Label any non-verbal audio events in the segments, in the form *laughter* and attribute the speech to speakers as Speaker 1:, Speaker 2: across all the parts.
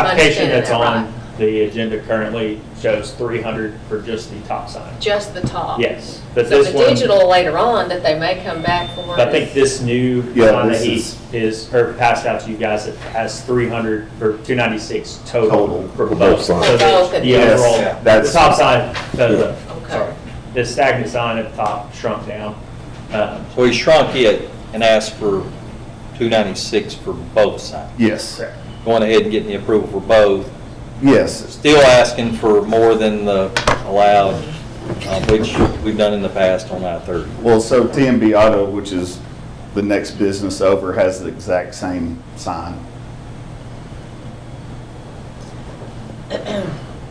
Speaker 1: application
Speaker 2: understanding
Speaker 1: that's
Speaker 2: that
Speaker 1: on
Speaker 2: right.
Speaker 1: the agenda currently shows 300 for just the top sign.
Speaker 2: Just the top.
Speaker 1: Yes, but
Speaker 2: Oh. So
Speaker 1: this
Speaker 2: the
Speaker 1: one,
Speaker 2: digital later on that they may come back for.
Speaker 1: I think this new
Speaker 3: Yeah,
Speaker 1: one that
Speaker 3: this
Speaker 1: he
Speaker 3: is-
Speaker 1: is, or passed out to you guys, it has 300 or 296 total
Speaker 3: Total
Speaker 1: for
Speaker 3: for
Speaker 1: both.
Speaker 3: both signs.
Speaker 1: So
Speaker 2: For both
Speaker 1: the-
Speaker 2: of
Speaker 1: The
Speaker 2: these.
Speaker 3: Yes,
Speaker 1: overall, the
Speaker 3: that's-
Speaker 1: top sign, no,
Speaker 2: Okay.
Speaker 1: sorry, the stagnant sign at the top shrunk down. Um,
Speaker 4: So he shrunk it and asked for 296 for both sides.
Speaker 3: Yes,
Speaker 1: correct.
Speaker 4: Going ahead and getting the approval for both,
Speaker 3: yes,
Speaker 4: still asking for more than the allowed, uh, which we've done in the past on I-30.
Speaker 3: well, so TMB Auto, which is the next business over, has the exact same sign.
Speaker 2: *clears throat*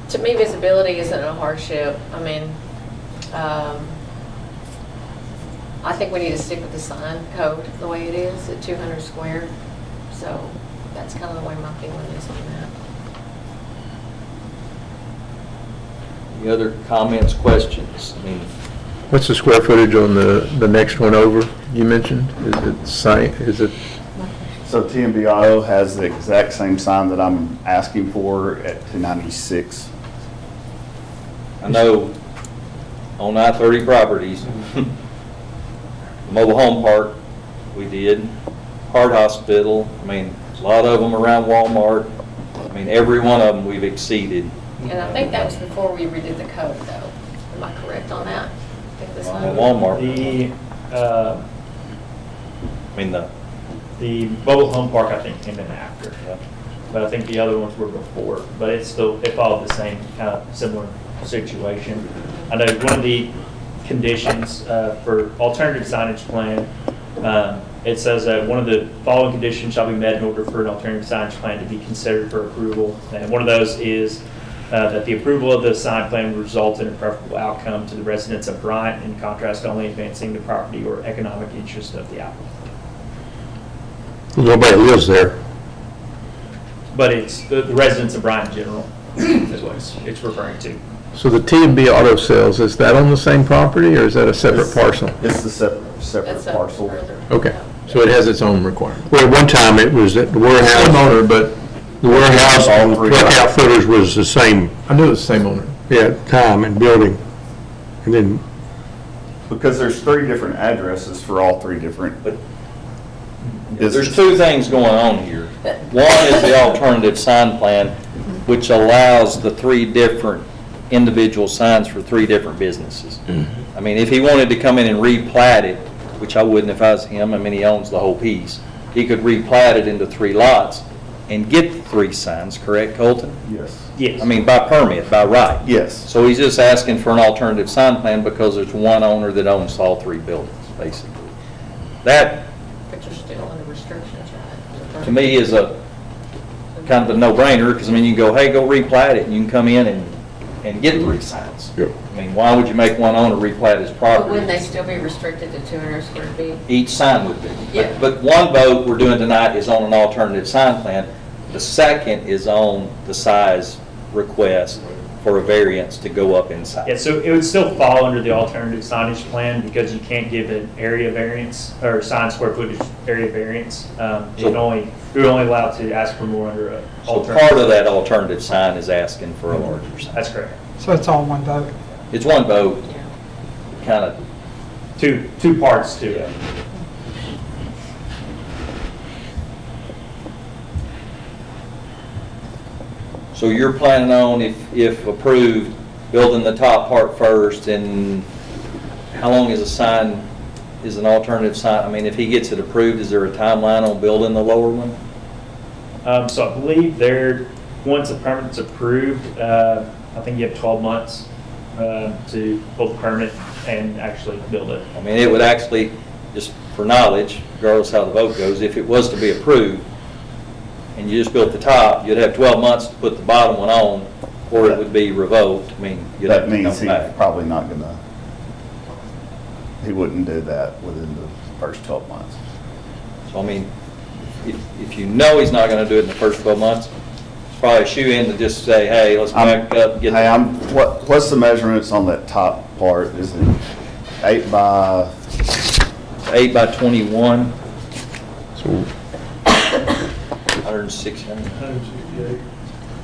Speaker 2: To me, visibility isn't a hardship. I mean, um, I think we need to stick with the sign code the way it is at 200 square. So that's kind of the way my feeling is on that.
Speaker 4: Any other comments, questions? I mean,
Speaker 5: What's the square footage on the, the next one over you mentioned? Is it same, is it,
Speaker 3: So TMB Auto has the exact same sign that I'm asking for at two ninety-six.
Speaker 4: I know on I-30 properties, *laughs* mobile home park, we did, Heart Hospital, I mean, a lot of them around Walmart. I mean, every one of them we've exceeded.
Speaker 2: And I think that was before we redid the code, though. Am I correct on that? I think this
Speaker 4: Well,
Speaker 2: one-
Speaker 4: Walmart.
Speaker 1: The, uh,
Speaker 4: I mean, the,
Speaker 1: the mobile home park, I think, came in after.
Speaker 4: yeah.
Speaker 1: But I think the other ones were before, but it's still, it followed the same kind of similar situation. I know one of the conditions uh, for alternative signage plan, um, it says that one of the following conditions shall be met in order for an alternative signage plan to be considered for approval. And one of those is uh, that the approval of the sign plan would result in a preferable outcome to the residents of Bryant in contrast to only advancing the property or economic interest of the applicant.
Speaker 5: nobody lives there?
Speaker 1: But it's the the residents of Bryan in *clears throat* general is what it's it's referring to.
Speaker 5: So the T and B Auto Sales, is that on the same property or is that a separate parcel?
Speaker 3: It's the separate, separate
Speaker 2: That's a
Speaker 3: parcel.
Speaker 2: further-
Speaker 5: Okay, so it has its own requirement.
Speaker 6: Well, at one time, it was that the warehouse,
Speaker 5: Same owner, but
Speaker 6: the warehouse,
Speaker 3: All three.
Speaker 6: truck footers was the same,
Speaker 5: I knew it was the same owner.
Speaker 6: yeah, time and building. And then,
Speaker 3: Because there's three different addresses for all three different.
Speaker 4: But- There's
Speaker 3: businesses.
Speaker 4: two things going on here. One is the alternative sign plan, which allows the three different individual signs for three different businesses. I mean, if he wanted to come in and replat it, which I wouldn't if I was him, I mean, he owns the whole piece, he could replat it into three lots and get the three signs, correct, Colton?
Speaker 3: Yes,
Speaker 1: Yes.
Speaker 4: I mean, by permit, by right.
Speaker 3: yes,
Speaker 4: So he's just asking for an alternative sign plan because there's one owner that owns all three buildings, basically. That,
Speaker 2: But you're still under restrictions, right?
Speaker 4: to me, is a, kind of a no-brainer, because I mean, you can go, hey, go replat it, and you can come in and, and get three signs.
Speaker 6: Yep.
Speaker 4: I mean, why would you make one owner replat his
Speaker 2: But wouldn't they
Speaker 4: property?
Speaker 2: still be restricted to 200 square feet?
Speaker 4: Each sign would be. But-
Speaker 2: Yeah.
Speaker 4: But one vote we're doing tonight is on an alternative sign plan. The second is on the size request for a variance to go up in size.
Speaker 1: Yeah, so it would still fall under the alternative signage plan because you can't give an area variance or sign square footage area variance. Um, You can only, you're only allowed to ask for more under a
Speaker 4: So part
Speaker 1: alternative.
Speaker 4: of that alternative sign is asking for a larger sign.
Speaker 1: That's correct.
Speaker 7: So it's all one vote.
Speaker 4: It's one vote,
Speaker 2: Yeah.
Speaker 4: kind of,
Speaker 1: Two, two parts to it.
Speaker 4: so you're planning on, if, if approved, building the top part first, and how long is a sign, is an alternative sign? I mean, if he gets it approved, is there a timeline on building the lower one?
Speaker 1: Um, So I believe there, once a permit's approved, uh, I think you have 12 months uh, to pull the permit and actually build it.
Speaker 4: I mean, it would actually, just for knowledge, regardless how the vote goes, if it was to be approved, and you just built the top, you'd have 12 months to put the bottom one on, or it would be revoked, I mean, you'd have
Speaker 3: that
Speaker 4: to
Speaker 3: means
Speaker 4: come
Speaker 3: he's
Speaker 4: back.
Speaker 3: probably not gonna, he wouldn't do that within the first twelve months.
Speaker 4: So I mean, if, if you know he's not gonna do it in the first twelve months, it's probably a shoe-in to just say, hey, let's
Speaker 3: I'm-
Speaker 4: back up, get.
Speaker 3: Hey, I'm, what, what's the measurements on that top part? Is it eight by,
Speaker 4: Eight by twenty-one,
Speaker 5: So
Speaker 4: hundred and six hundred.